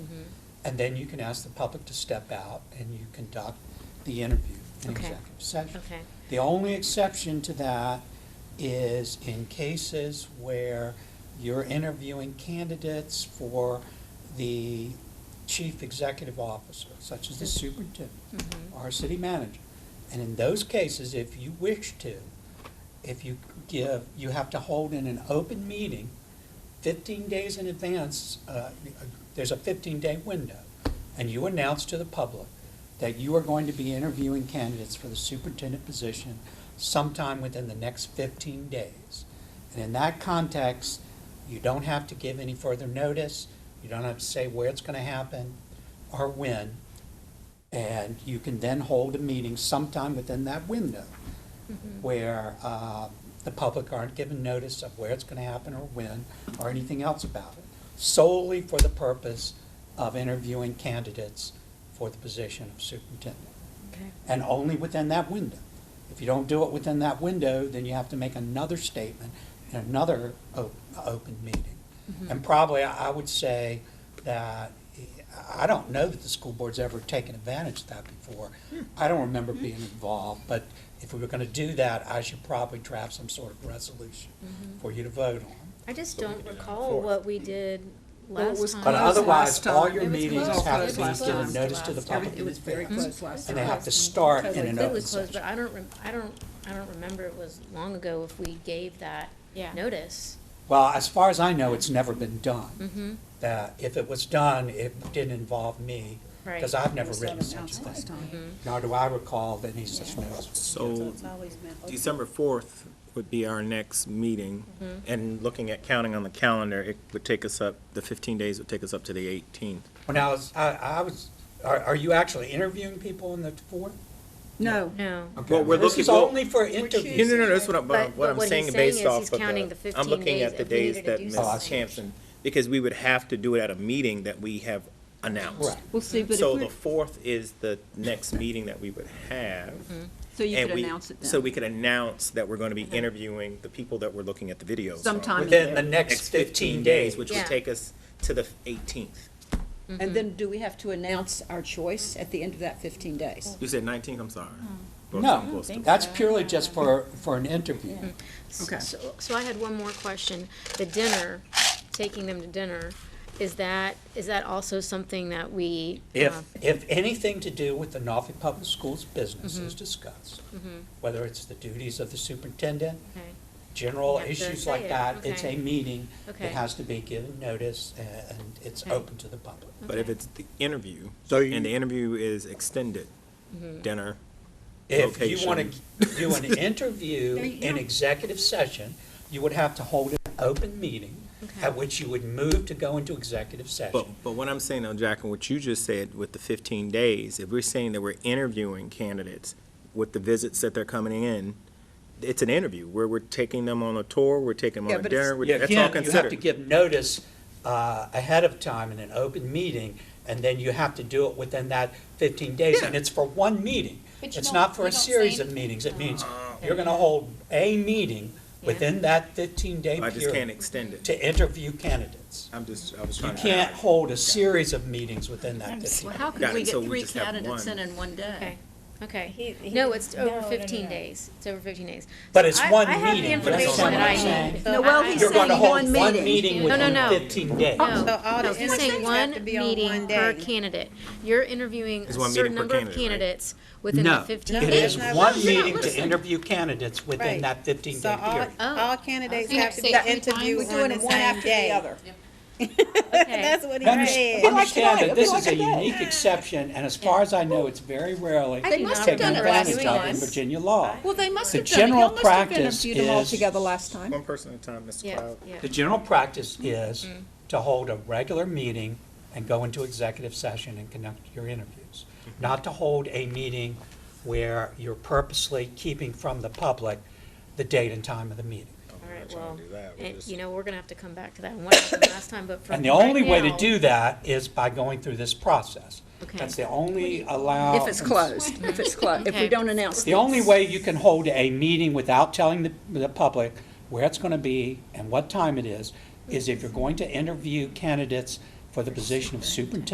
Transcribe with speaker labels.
Speaker 1: And then you can ask the public to step out and you conduct the interview in
Speaker 2: Okay.
Speaker 1: executive session.
Speaker 2: Okay.
Speaker 1: The only exception to that is in cases where you're interviewing candidates for the chief executive officer, such as the superintendent
Speaker 2: Mhm.
Speaker 1: or city manager. And in those cases, if you wish to, if you give, you have to hold in an open meeting fifteen days in advance, uh, there's a fifteen-day window, and you announce to the public that you are going to be interviewing candidates for the superintendent position sometime within the next fifteen days. And in that context, you don't have to give any further notice, you don't have to say where it's gonna happen or when. And you can then hold a meeting sometime within that window
Speaker 2: Mm-hmm.
Speaker 1: where uh, the public aren't given notice of where it's going to happen or when or anything else about it, solely for the purpose of interviewing candidates for the position of superintendent.
Speaker 2: Okay.
Speaker 1: And only within that window. If you don't do it within that window, then you have to make another statement in another o- open meeting.
Speaker 2: Mm-hmm.
Speaker 1: And probably, I I would say that, I don't know that the school board's ever taken advantage of that before.
Speaker 2: Hmm.
Speaker 1: I don't remember being involved, but if we were going to do that, I should probably draft some sort of resolution
Speaker 2: Mm-hmm.
Speaker 1: for you to vote on.
Speaker 2: I just
Speaker 3: So we
Speaker 2: don't
Speaker 3: can do that
Speaker 2: recall
Speaker 3: before.
Speaker 2: what we did
Speaker 4: Well, it
Speaker 2: last
Speaker 4: was
Speaker 2: time.
Speaker 1: But
Speaker 4: Close
Speaker 1: otherwise,
Speaker 4: last
Speaker 1: all
Speaker 4: time.
Speaker 1: your
Speaker 4: It was
Speaker 1: meetings
Speaker 4: closed
Speaker 1: have
Speaker 4: last
Speaker 1: to be given
Speaker 4: time.
Speaker 1: notice to the
Speaker 2: Last
Speaker 1: public.
Speaker 4: Everything was very
Speaker 5: Mm-hmm.
Speaker 1: in advance.
Speaker 4: close last
Speaker 1: And
Speaker 4: time.
Speaker 1: they have to start in an
Speaker 2: Completely
Speaker 1: open
Speaker 2: closed, but
Speaker 1: session.
Speaker 2: I don't, rem- I don't, I don't remember it was long ago if we gave that
Speaker 3: Yeah.
Speaker 2: notice.
Speaker 1: Well, as far as I know, it's never been done.
Speaker 2: Mm-hmm.
Speaker 1: That if it was done, it didn't involve me. Because
Speaker 2: Right.
Speaker 1: I've never
Speaker 4: was
Speaker 1: written
Speaker 4: not
Speaker 1: such
Speaker 4: announced
Speaker 1: a
Speaker 4: last
Speaker 1: thing.
Speaker 4: time.
Speaker 1: Nor do I recall that he's just noticed.
Speaker 3: So Oh, December 4th would be our next meeting, and looking at counting on the calendar, it would take us up, the 15 days would take us up to the 18th.
Speaker 1: When I was, I, I was, are, are you actually interviewing people in the fourth?
Speaker 4: No.
Speaker 2: No.
Speaker 1: Okay,
Speaker 3: Well, we're
Speaker 1: This
Speaker 3: looking-
Speaker 1: is
Speaker 3: well-
Speaker 1: only for
Speaker 3: No, no,
Speaker 1: interviews.
Speaker 3: no, that's what I'm,
Speaker 2: But-
Speaker 3: what
Speaker 2: but
Speaker 3: I'm
Speaker 2: what he's
Speaker 3: saying
Speaker 2: saying
Speaker 3: based
Speaker 2: is
Speaker 3: off
Speaker 2: he's
Speaker 3: of
Speaker 2: counting the
Speaker 3: the,
Speaker 2: 15
Speaker 3: I'm looking
Speaker 2: days
Speaker 3: at the
Speaker 2: if we
Speaker 3: days
Speaker 2: needed to
Speaker 3: that
Speaker 2: do
Speaker 3: Ms.
Speaker 2: something.
Speaker 3: Sampson, because we would have to do it at a meeting that we have announced.
Speaker 1: Right.
Speaker 5: We'll see, but if
Speaker 3: So the
Speaker 5: we're,
Speaker 3: 4th is the next meeting that we would have.
Speaker 5: so you
Speaker 3: and
Speaker 5: could
Speaker 3: we-
Speaker 5: announce it then.
Speaker 3: So we could announce that we're going to be interviewing the people that we're looking at the videos. on.
Speaker 5: Sometime in
Speaker 1: Within the
Speaker 5: there.
Speaker 1: next fifteen days,
Speaker 3: days, which
Speaker 2: Yeah.
Speaker 3: would take us to the 18th.
Speaker 5: And then do we have to announce our choice at the end of that fifteen days?
Speaker 3: You said 19th, I'm sorry.
Speaker 5: Hmm.
Speaker 3: Both of them
Speaker 1: No,
Speaker 3: close to-
Speaker 1: that's purely just for, for an interview.
Speaker 5: Okay.
Speaker 2: So, so I had one more question. The dinner, taking them to dinner, is that, is that also something that we? uh,
Speaker 1: If, if anything to do with the Norfolk Public Schools business
Speaker 2: Mm-hmm.
Speaker 1: is discussed, whether it's the duties of the superintendent,
Speaker 2: okay.
Speaker 1: general
Speaker 2: You have to
Speaker 1: issues
Speaker 2: say
Speaker 1: like
Speaker 2: it,
Speaker 1: that, it's
Speaker 2: okay.
Speaker 1: a meeting.
Speaker 2: Okay.
Speaker 1: It has to be given notice uh, and it's
Speaker 2: Okay.
Speaker 1: open to the public.
Speaker 3: But if it's the interview,
Speaker 6: So you-
Speaker 3: and the interview is extended,
Speaker 5: Mm-hmm.
Speaker 3: dinner,
Speaker 1: If you want
Speaker 3: Location.
Speaker 1: to do an interview
Speaker 5: There you
Speaker 1: in
Speaker 5: go.
Speaker 1: executive session, you would have to hold an open meeting
Speaker 2: Okay.
Speaker 1: at which you would move to go into executive
Speaker 3: But,
Speaker 1: session.
Speaker 3: but what I'm saying now, Jack, and what you just said with the fifteen days, if we're saying that we're interviewing candidates with the visits that they're coming in, it's an interview where we're taking them on a tour, we're taking them
Speaker 5: Yeah,
Speaker 3: on a
Speaker 5: but it's-
Speaker 3: dinner, we're-
Speaker 1: Yeah,
Speaker 3: that's all
Speaker 1: Again, you have to
Speaker 3: considered.
Speaker 1: give notice uh, ahead of time in an open meeting, and then you have to do it within that 15 days. And
Speaker 3: Yeah.
Speaker 1: it's for one meeting.
Speaker 7: But you
Speaker 1: It's
Speaker 7: don't-
Speaker 1: not for
Speaker 7: you
Speaker 1: a
Speaker 7: don't say
Speaker 1: series of
Speaker 7: anything.
Speaker 1: meetings. It
Speaker 3: Uh,
Speaker 1: means you're going to hold a meeting within that 15-day
Speaker 3: I just can't
Speaker 1: period
Speaker 3: extend it.
Speaker 1: to interview candidates.
Speaker 3: I'm just, I was
Speaker 1: You
Speaker 3: trying to.
Speaker 1: can't hold a series of meetings within that 15.
Speaker 5: Well, how
Speaker 3: Got
Speaker 5: could
Speaker 3: it,
Speaker 5: we
Speaker 3: so
Speaker 5: get
Speaker 3: we
Speaker 5: three
Speaker 3: just have
Speaker 5: candidates
Speaker 3: one.
Speaker 5: in in one
Speaker 2: Okay,
Speaker 5: day?
Speaker 2: okay.
Speaker 7: He-
Speaker 2: No,
Speaker 7: he-
Speaker 2: it's
Speaker 7: no,
Speaker 2: over
Speaker 7: no, no,
Speaker 2: fifteen
Speaker 7: no.
Speaker 2: days. It's over fifteen days.
Speaker 1: But it's
Speaker 2: I-
Speaker 1: one
Speaker 2: I have the
Speaker 1: meeting, but
Speaker 3: it's
Speaker 2: information
Speaker 3: only
Speaker 2: that I
Speaker 3: one
Speaker 2: need.
Speaker 7: meeting.
Speaker 2: so
Speaker 5: No, well,
Speaker 2: I-
Speaker 5: he's
Speaker 1: You're
Speaker 2: I-
Speaker 5: saying
Speaker 1: going to hold
Speaker 5: one
Speaker 1: one
Speaker 5: meeting.
Speaker 1: meeting
Speaker 2: No, no,
Speaker 1: within
Speaker 2: no. Oh,
Speaker 1: 15 days.
Speaker 2: No,
Speaker 4: all
Speaker 2: no,
Speaker 4: the
Speaker 2: he's saying
Speaker 4: interviews have to
Speaker 2: one
Speaker 4: be on
Speaker 2: meeting
Speaker 4: one
Speaker 2: per
Speaker 4: day.
Speaker 2: candidate. You're interviewing a
Speaker 3: It's one meeting
Speaker 2: certain
Speaker 3: per
Speaker 2: number of
Speaker 3: candidate, right?
Speaker 2: candidates within the fifteen
Speaker 1: It
Speaker 2: days.
Speaker 1: is
Speaker 4: No,
Speaker 1: one
Speaker 4: no,
Speaker 1: meeting
Speaker 2: listen.
Speaker 1: to interview candidates within
Speaker 4: Right.
Speaker 1: that 15-day
Speaker 4: So all,
Speaker 1: period.
Speaker 2: Oh.
Speaker 4: all candidates
Speaker 2: Okay.
Speaker 4: have to be
Speaker 2: That-
Speaker 4: interviewed on the same day.
Speaker 2: Okay.
Speaker 4: That's what he
Speaker 1: Under-
Speaker 4: said.
Speaker 1: Understand that this is a unique exception, and as far as I know, it's very rarely
Speaker 5: They must have
Speaker 1: taken
Speaker 5: done it
Speaker 1: advantage
Speaker 5: last
Speaker 1: of in
Speaker 5: once.
Speaker 1: Virginia law.
Speaker 5: Well, they must
Speaker 1: The
Speaker 5: have done it. Y'all
Speaker 1: general
Speaker 5: must have
Speaker 1: practice
Speaker 5: interviewed them all
Speaker 1: is-
Speaker 5: together last time.
Speaker 3: One person at a time, Mr.
Speaker 2: Yeah,
Speaker 3: Cloud.
Speaker 2: yeah.
Speaker 1: The general practice
Speaker 4: Mm-hmm.
Speaker 1: is to hold a regular meeting and go into executive session and conduct your interviews.
Speaker 4: Mm-hmm.
Speaker 1: Not to hold a meeting where you're purposely keeping from the public the date and time of the meeting.
Speaker 2: All right,
Speaker 3: trying
Speaker 2: well,
Speaker 3: to do that. We're
Speaker 2: eh,
Speaker 3: just-
Speaker 2: you know, we're gonna have to come back to that and what happened last time, but from
Speaker 1: And the only
Speaker 2: right
Speaker 1: way to
Speaker 2: now-
Speaker 1: do that is by going through this process.
Speaker 2: Okay.
Speaker 1: That's the only allow.
Speaker 5: If it's closed, if it's closed, if
Speaker 2: Okay.
Speaker 5: we don't announce.
Speaker 1: The only
Speaker 5: these.
Speaker 1: way you can hold a meeting without telling the, the public where it's gonna be and what time it is, is if you're going to interview candidates for the position of superintendent